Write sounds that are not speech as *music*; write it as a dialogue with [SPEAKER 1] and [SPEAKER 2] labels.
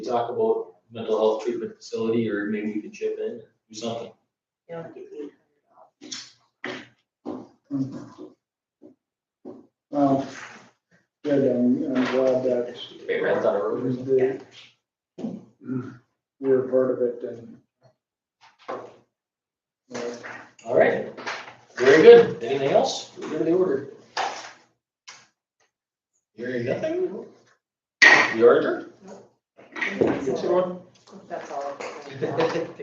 [SPEAKER 1] talk about mental health treatment facility, or maybe we could chip in, do something.
[SPEAKER 2] You know, get eight
[SPEAKER 3] Well, good, I'm, I'm glad that
[SPEAKER 1] Hey, Red Dot Road.
[SPEAKER 3] the- we're part of it and. uh,
[SPEAKER 1] All right, very good. Anything else? We're in the order. Hearing nothing? You ordered?
[SPEAKER 2] hundred dollars.
[SPEAKER 1] everyone? *laughs*
[SPEAKER 2] That's all.